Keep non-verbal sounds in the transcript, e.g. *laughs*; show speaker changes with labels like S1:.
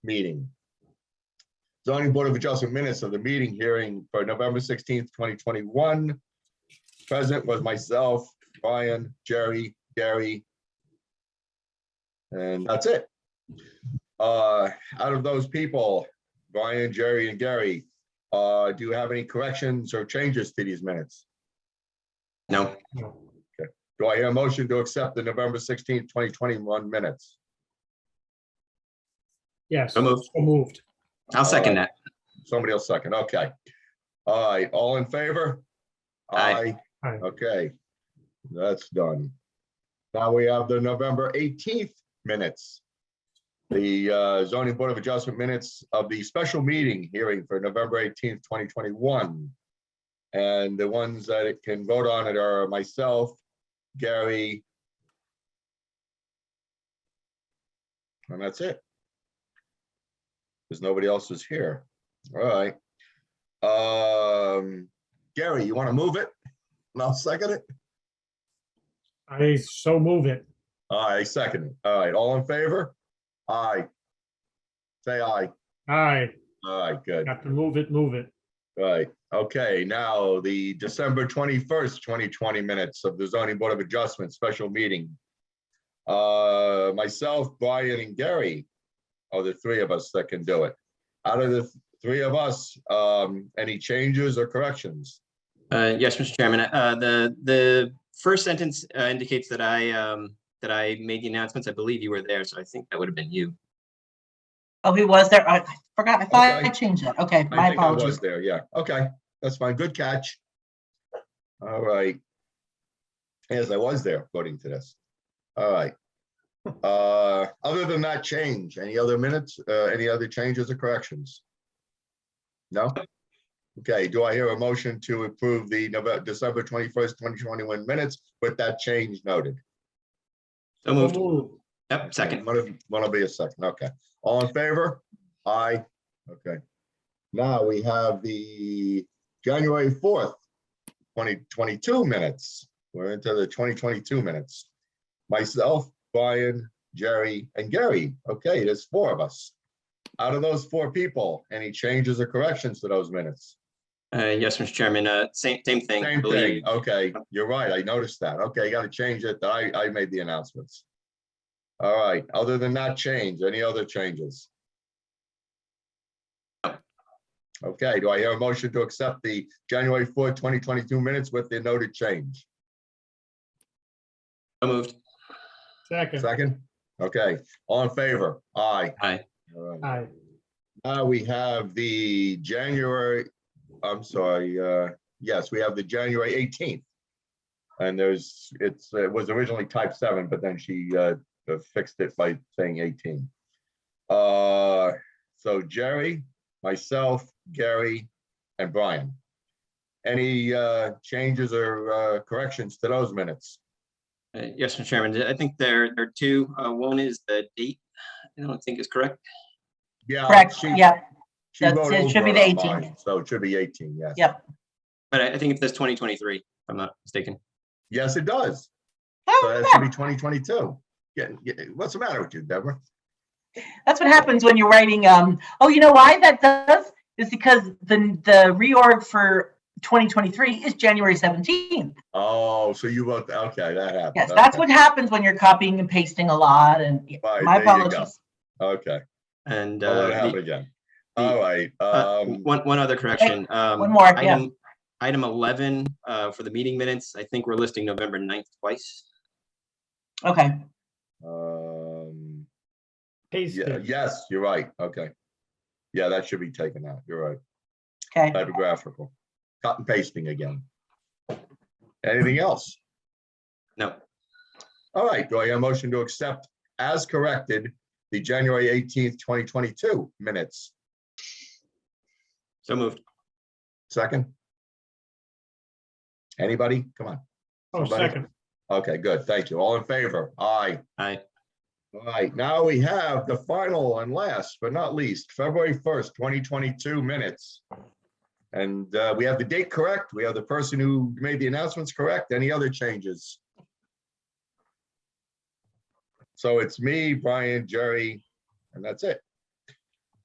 S1: meeting. Zoning Board of Adjustment minutes of the meeting hearing for November sixteenth, twenty twenty-one. Present was myself, Brian, Jerry, Gary. And that's it. Uh, out of those people, Brian, Jerry, and Gary, uh, do you have any corrections or changes to these minutes?
S2: No,
S1: Do I hear a motion to accept the November sixteenth, twenty twenty-one minutes?
S3: Yes,
S2: so moved.
S3: so moved.
S2: I'll second that.
S1: Somebody else second, okay. All right, all in favor?
S2: Aye.
S3: Aye.
S1: Okay, that's done. Now we have the November eighteenth minutes. The uh, zoning board of adjustment minutes of the special meeting hearing for November eighteenth, twenty twenty-one. And the ones that it can vote on it are myself, Gary. And that's it. Because nobody else is here. All right. Um, Gary, you want to move it? And I'll second it.
S3: I so move it.
S1: All right, second it. All right, all in favor? Aye. Say aye.
S3: Aye,
S1: All right, good. All
S3: got to move it, move it.
S1: right. Okay, now the December twenty-first, twenty twenty minutes of the zoning board of adjustment special meeting. Uh, myself, Brian and Gary are the three of us that can do it. Out of the th- three of us, um, any changes or corrections?
S2: Uh, Yes, Mr. Chairman, uh, the, the first sentence uh, indicates that I, um, that I made the announcements. I believe you were there, so I think that would have been you.
S4: Oh, he was there. I forgot. I thought
S1: Okay.
S4: I changed that. Okay,
S1: I
S4: my
S1: think I was
S4: apologies.
S1: there, yeah. Okay, that's fine. Good catch. All right. Yes, I was there according to this. All right. Uh, other than that change, any other minutes, uh, any other changes or corrections? No? Okay, do I hear a motion to approve the November, December twenty-first, twenty twenty-one minutes with that change noted?
S2: So
S3: So
S2: moved.
S3: moved.
S2: Yep, second.
S1: One of, one will be a second, okay. All in favor? Aye, okay. Now we have the January fourth, twenty twenty-two minutes. We're into the twenty twenty-two minutes. Myself, Brian, Jerry, and Gary. Okay, there's four of us. Out of those four people, any changes or corrections to those minutes?
S2: Uh, Yes, Mr. Chairman, uh, same, same thing. I
S1: Same
S2: believe.
S1: thing, okay, *laughs* you're right, I noticed that, okay, you gotta change it, I, I made the announcements. All right, other than that change, any other changes? Okay, do I hear a motion to accept the January fourth, twenty twenty-two minutes with the noted change?
S2: So moved.
S3: Second,
S1: Second, okay, all in favor, aye.
S2: Aye.
S1: All right.
S3: aye.
S1: Uh, we have the January, I'm sorry, uh, yes, we have the January eighteenth. And there's, it's, it was originally type seven, but then she, uh, fixed it by saying eighteen. Uh, so Jerry, myself, Gary, and Brian. Any, uh, changes or, uh, corrections to those minutes?
S2: Uh, Yes, Mr. Chairman, I think there, there are two. Uh, One is the date. I don't think is correct.
S1: Yeah.
S4: Correct.
S1: she-
S4: Yeah,
S1: she
S4: that's-
S1: wrote
S4: it should be
S1: over
S4: the
S1: on mine,
S4: 18th.
S1: So it should be eighteen, yes.
S4: Yeah.
S2: But I I think it says 2023, if I'm not mistaken.
S1: Yes, it does. So
S4: Oh,
S1: that should be twenty twenty-two. Yeah, yeah, what's the matter with you, Deborah?
S4: that's what happens when you're writing, um, oh, you know why that does? Is because the, the reorg for 2023 is January 17th.
S1: Oh, so you wrote, okay, that happened.
S4: Yes, that's
S1: okay,
S4: what happens when you're copying and pasting a lot and yeah,
S1: Right,
S4: my
S1: there you go.
S4: apologies.
S1: Okay,
S2: And.
S1: I'll
S2: uh,
S1: let Oh, it
S2: the-
S1: happen again.
S2: the-
S1: All right,
S2: Uh,
S1: um,
S2: One, one other correction. Um,
S4: one more, yeah.
S2: Item 11 uh, for the meeting minutes, I think we're listing November 9th twice.
S4: Okay,
S1: um, yeah,
S3: Pasted.
S1: yes, you're right, okay. Yeah, that should be taken out, you're right,
S4: okay.
S1: typographical, cut and pasting again. Anything else?
S2: No,
S1: All right, do I have a motion to accept as corrected the January eighteenth, twenty twenty-two minutes?
S2: so moved.
S1: Second? Anybody? Come on.
S3: Oh, second,
S1: Okay, good. Thank you. All in favor? Aye.
S2: Aye.
S1: All right, now we have the final and last but not least, February first, twenty twenty-two minutes. And uh, we have the date correct. We have the person who made the announcements correct. Any other changes? So it's me, Brian, Jerry, and that's it.